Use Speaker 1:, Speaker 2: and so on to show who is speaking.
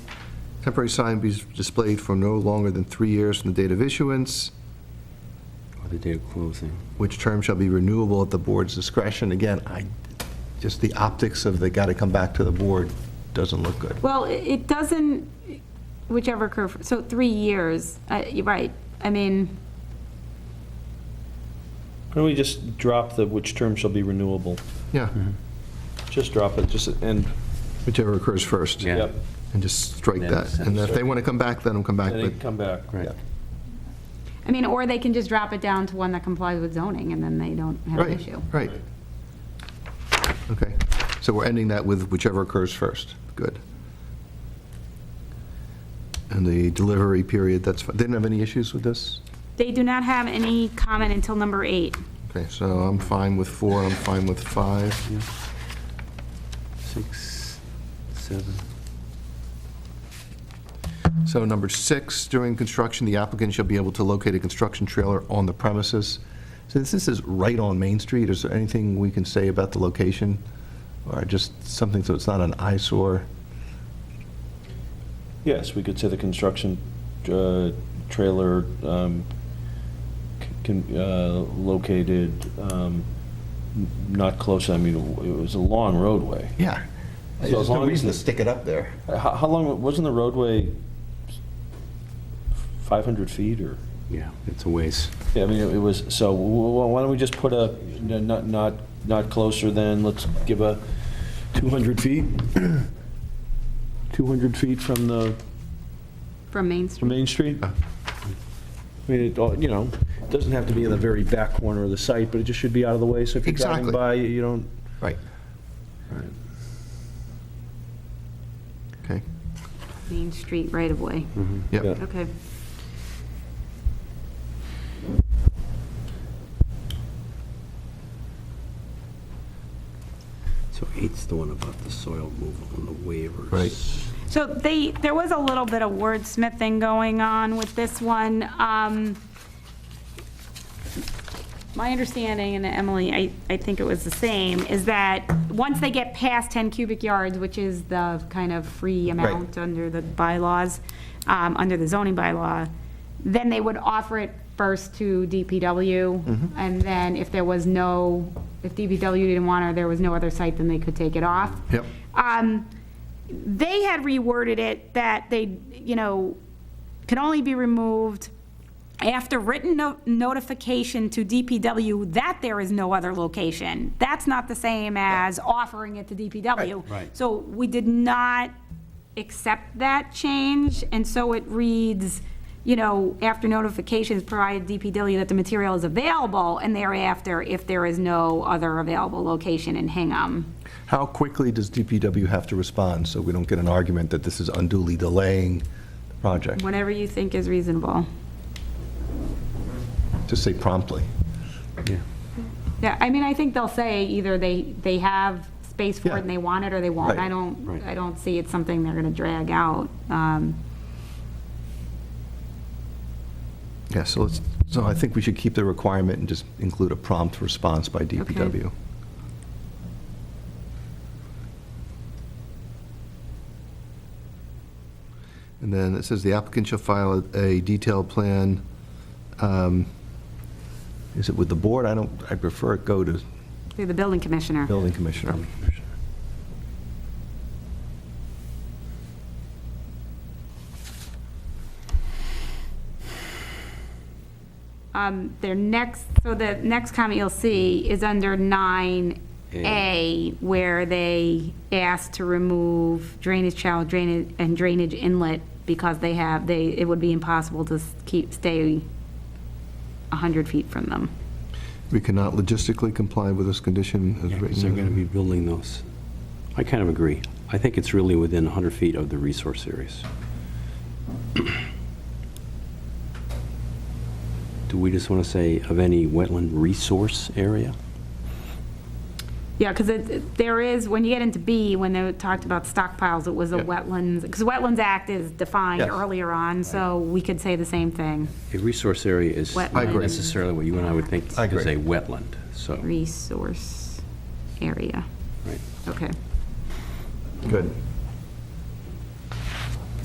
Speaker 1: Temporary sign be displayed for no longer than three years from the date of issuance,
Speaker 2: Or the day of closing.
Speaker 1: which term shall be renewable at the board's discretion. Again, I, just the optics of they got to come back to the board doesn't look good.
Speaker 3: Well, i- it doesn't, whichever curve, so three years, uh, you're right. I mean,
Speaker 4: Why don't we just drop the which term shall be renewable?
Speaker 1: Yeah,
Speaker 4: Mm-hmm. Just drop it, just, and,
Speaker 1: whichever occurs first.
Speaker 2: Yeah.
Speaker 4: yep,
Speaker 1: And just strike
Speaker 2: Yeah,
Speaker 1: that. And if they want to come back, let them come back,
Speaker 4: and
Speaker 1: but
Speaker 4: then come back.
Speaker 2: Right.
Speaker 1: Yeah.
Speaker 3: I mean, or they can just drop it down to one that complies with zoning, and then they don't have an
Speaker 1: Right,
Speaker 3: issue.
Speaker 1: right. Okay, so we're ending that with whichever occurs first. Good. And the delivery period, that's, fi- they didn't have any issues with this?
Speaker 3: They do not have any comment until number eight.
Speaker 1: Okay, so I'm fine with four, I'm fine with five.
Speaker 2: Six, seven.
Speaker 1: So number six, during construction, the applicant shall be able to locate a construction trailer on the premises. Since this is right on Main Street, is there anything we can say about the location? Or just something so it's not an eyesore?
Speaker 4: Yes, we could say the construction uh, trailer um, c- can, uh, located um, n- not close, I mean, it was a long roadway.
Speaker 1: Yeah.
Speaker 4: So as long as the-
Speaker 1: stick it up there.
Speaker 4: Uh, How, how long, wasn't the roadway 500 feet or?
Speaker 2: Yeah, it's a ways.
Speaker 4: Yeah, I mean, it was, so wh- wh- why don't we just put a, n- not, not, not closer than, let's give a 200 feet? 200 feet from the,
Speaker 3: From Main
Speaker 4: from
Speaker 3: Street.
Speaker 4: Main Street? I mean, it, all- you know, it doesn't have to be in the very back corner of the site, but it just should be out of the way, so if you're driving
Speaker 1: Exactly.
Speaker 4: by, you don't.
Speaker 1: Right. Okay,
Speaker 3: Main Street right of way.
Speaker 1: yep.
Speaker 4: Yeah.
Speaker 3: Okay.
Speaker 2: So eight's the one about the soil removal and the waivers.
Speaker 1: Right.
Speaker 3: So they, there was a little bit of wordsmithing going on with this one. Um, My understanding, and Emily, I, I think it was the same, is that once they get past 10 cubic yards, which is the kind of free amount under the bylaws, um, under the zoning bylaw, then they would offer it first to DPW. And then if there was no, if DPW didn't want it, or there was no other site, then they could take it off.
Speaker 1: Yep.
Speaker 3: Um, They had reworded it that they, you know, can only be removed after written no- notification to DPW that there is no other location. That's not the same as offering it to DPW.
Speaker 2: Right. Right.
Speaker 3: So we did not accept that change, and so it reads, you know, after notifications provided DPW that the material is available, and thereafter, if there is no other available location in Hingham.
Speaker 1: How quickly does DPW have to respond so we don't get an argument that this is unduly delaying the project?
Speaker 3: Whatever you think is reasonable.
Speaker 1: Just say promptly.
Speaker 2: Yeah.
Speaker 3: Yeah, I mean, I think they'll say either they, they have space for
Speaker 1: Yeah.
Speaker 3: it and they want it, or they won't.
Speaker 1: Right,
Speaker 3: I don't,
Speaker 2: right.
Speaker 3: I don't see it's something they're gonna drag out. Um,
Speaker 1: Yeah, so let's, so I think we should keep the requirement and just include a prompt response by DPW. And then it says the applicant shall file a detailed plan. um, Is it with the board? I don't, I prefer it go to
Speaker 3: Through the building commissioner.
Speaker 1: building commissioner.
Speaker 3: Um, Their next, so the next comment you'll
Speaker 1: Mm.
Speaker 3: see is under 9A, where they asked to remove drainage channel drainage, and drainage inlet because they have, they, it would be impossible to s- keep, stay 100 feet from them.
Speaker 1: We cannot logistically comply with this condition as written.
Speaker 2: Because they're going to be building those. I kind of agree. I think it's really within 100 feet of the resource areas. Do we just want to say of any wetland resource area?
Speaker 3: Yeah, because it, there is, when you get into B, when they talked about stockpiles, it was a
Speaker 1: Yeah.
Speaker 3: wetlands, because Wetlands Act is defined
Speaker 1: Yes.
Speaker 3: earlier on, so we could say the same thing.
Speaker 2: A resource area is not
Speaker 3: Wetland.
Speaker 1: agree.
Speaker 2: necessarily what you and I would think is
Speaker 1: I
Speaker 2: a
Speaker 1: agree.
Speaker 2: wetland, so,
Speaker 3: Resource area,
Speaker 2: right.
Speaker 3: okay.
Speaker 1: Good.